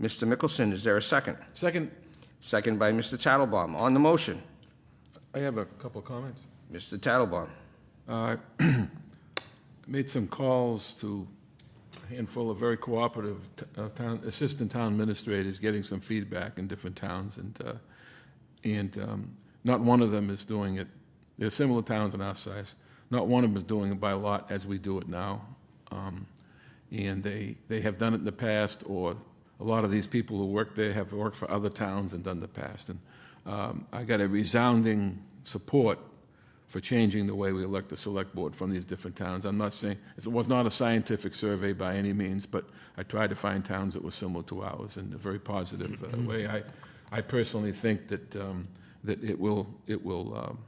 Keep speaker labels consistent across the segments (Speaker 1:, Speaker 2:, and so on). Speaker 1: Mr. Mickelson, is there a second?
Speaker 2: Second,
Speaker 1: Second by Mr. Tattlebaum. On the motion,
Speaker 2: I have a couple of comments.
Speaker 1: Mr. Tattlebaum.
Speaker 2: Uh, Made some calls to a handful of very cooperative t- uh, town, assistant town administrators, getting some feedback in different towns, and, uh, and um, not one of them is doing it, there are similar towns in our size, not one of them is doing it by lot as we do it now. Um, And they, they have done it in the past, or a lot of these people who work there have worked for other towns and done the past. And um, I got a resounding support for changing the way we elect the select board from these different towns. I'm not saying, it was not a scientific survey by any means, but I tried to find towns that were similar to ours in a very positive uh, way. I, I personally think that, um, that it will, it will, um,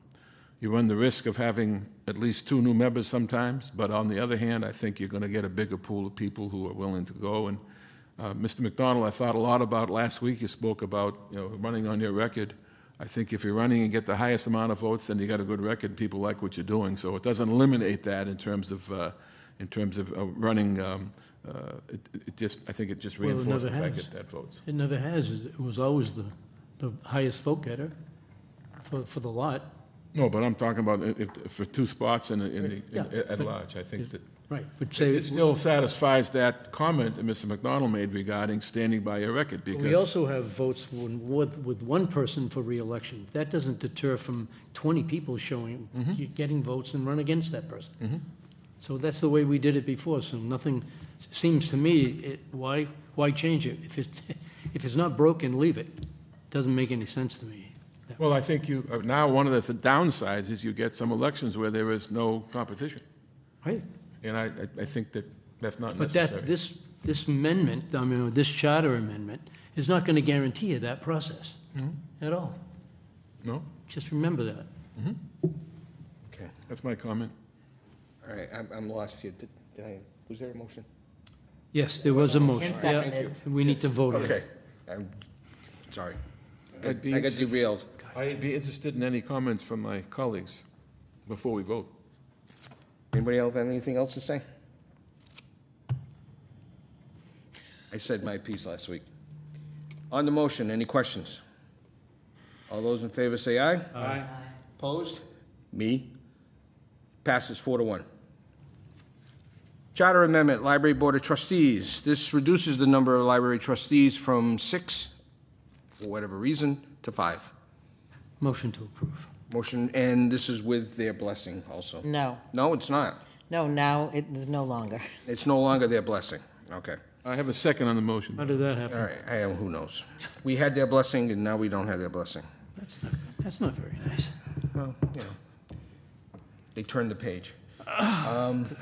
Speaker 2: you run the risk of having at least two new members sometimes, but on the other hand, I think you're going to get a bigger pool of people who are willing to go. And uh, Mr. McDonald, I thought a lot about last week, you spoke about, you know, running on your record. I think if you're running and get the highest amount of votes, then you got a good record, people like what you're doing. So it doesn't eliminate that in terms of, uh, in terms of uh, running, um, uh, it it just, I think it just
Speaker 3: it
Speaker 2: reinforces the
Speaker 3: never
Speaker 2: fact
Speaker 3: has.
Speaker 2: that that votes.
Speaker 3: It never has. It was always the, the highest vote getter for, for the lot.
Speaker 2: No, but I'm talking about if, if for two spots in, the- in the, in-
Speaker 3: Yeah.
Speaker 2: at large, I think that.
Speaker 3: Right, which
Speaker 2: It
Speaker 3: say,
Speaker 2: still satisfies that comment that Mr. McDonald made regarding standing by your record,
Speaker 3: we
Speaker 2: because,
Speaker 3: also have votes when- with, with one person for reelection. That doesn't deter from 20 people showing, getting votes and run against that person. So that's the way we did it before, so nothing, seems to me, it, why, why change it? If it's, if it's not broken, leave it. Doesn't make any sense to me.
Speaker 2: well, I think you, uh, now, one of the downsides is you get some elections where there is no competition.
Speaker 3: Right.
Speaker 2: And I, I- I think that that's not
Speaker 3: But that,
Speaker 2: necessary.
Speaker 3: this, this amendment, I mean, this charter amendment, is not going to guarantee you that process at all.
Speaker 2: No,
Speaker 3: Just remember that.
Speaker 1: Okay.
Speaker 2: that's my comment.
Speaker 1: All right, I'm, I'm lost here. Did did I, was there a motion?
Speaker 3: Yes, there was a motion.
Speaker 4: And
Speaker 3: Yeah,
Speaker 4: seconded.
Speaker 3: We need to vote on
Speaker 1: Okay,
Speaker 3: it.
Speaker 1: I'm, sorry. I
Speaker 2: I'd be
Speaker 1: got
Speaker 2: interested-
Speaker 1: derailed.
Speaker 2: I'd be interested in any comments from my colleagues before we vote.
Speaker 1: Anybody else have anything else to say? I said my piece last week. On the motion, any questions? All those in favor say aye.
Speaker 2: Aye.
Speaker 1: Opposed? Me. Passes four to one. Charter Amendment, Library Board of Trustees. This reduces the number of library trustees from six, for whatever reason, to five.
Speaker 3: Motion to approve.
Speaker 1: Motion, and this is with their blessing also.
Speaker 4: No,
Speaker 1: No, it's not.
Speaker 4: no, now it is no longer.
Speaker 1: It's no longer their blessing. Okay.
Speaker 2: I have a second on the motion.
Speaker 3: How did that
Speaker 1: All
Speaker 3: happen?
Speaker 1: right, I am, who knows? We had their blessing, and now we don't have their blessing.
Speaker 3: That's not, that's not very nice.
Speaker 1: Well, you know, they turned the page. Um,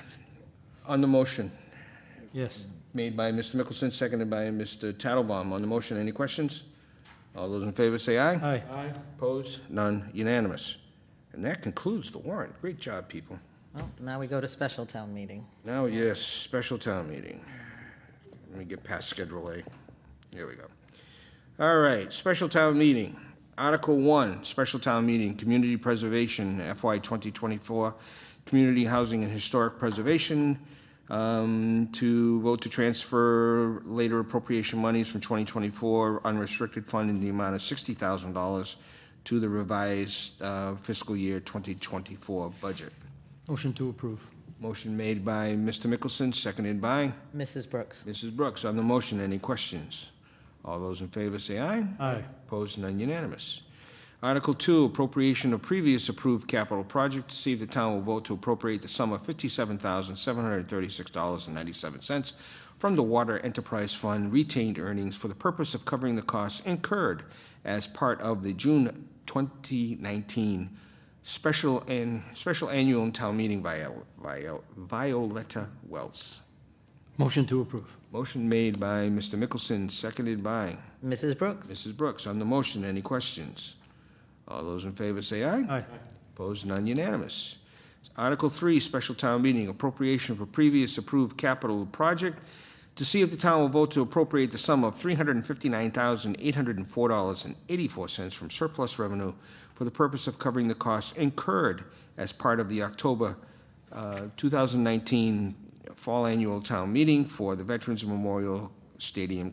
Speaker 1: On the motion,
Speaker 3: Yes.
Speaker 1: made by Mr. Mickelson, seconded by Mr. Tattlebaum. On the motion, any questions? All those in favor say aye.
Speaker 3: Aye.
Speaker 1: Opposed? None, unanimous. And that concludes the warrant. Great job, people.
Speaker 4: Well, now we go to special town meeting.
Speaker 1: Now, yes, special town meeting. Let me get past Schedule A. Here we go. All right, special town meeting. Article One, special town meeting, community preservation, FY 2024, community housing and historic preservation, um, to vote to transfer later appropriation monies from 2024 unrestricted fund in the amount of $60,000 to the revised uh, fiscal year 2024 budget.
Speaker 3: Motion to approve.
Speaker 1: Motion made by Mr. Mickelson, seconded by
Speaker 4: Mrs. Brooks,
Speaker 1: Mrs. Brooks. On the motion, any questions? All those in favor say aye.
Speaker 3: Aye.
Speaker 1: Opposed, none unanimous. Article two, appropriation of previous approved capital project, to see if the town will vote to appropriate the sum of fifty-seven thousand, seven hundred and thirty-six dollars and ninety-seven cents from the Water Enterprise Fund retained earnings for the purpose of covering the costs incurred as part of the June twenty nineteen special and, special annual town meeting by, Viol- Violetta Wells.
Speaker 3: Motion to approve.
Speaker 1: Motion made by Mr. Mickelson, seconded by
Speaker 4: Mrs. Brooks,
Speaker 1: Mrs. Brooks, on the motion, any questions? All those in favor say aye.
Speaker 3: Aye.
Speaker 1: Opposed, none unanimous. Article three, special town meeting, appropriation for previous approved capital project to see if the town will vote to appropriate the sum of three hundred and fifty-nine thousand, eight hundred and four dollars and eighty-four cents from surplus revenue for the purpose of covering the costs incurred as part of the October uh, 2019 Fall Annual Town Meeting for the Veterans Memorial Stadium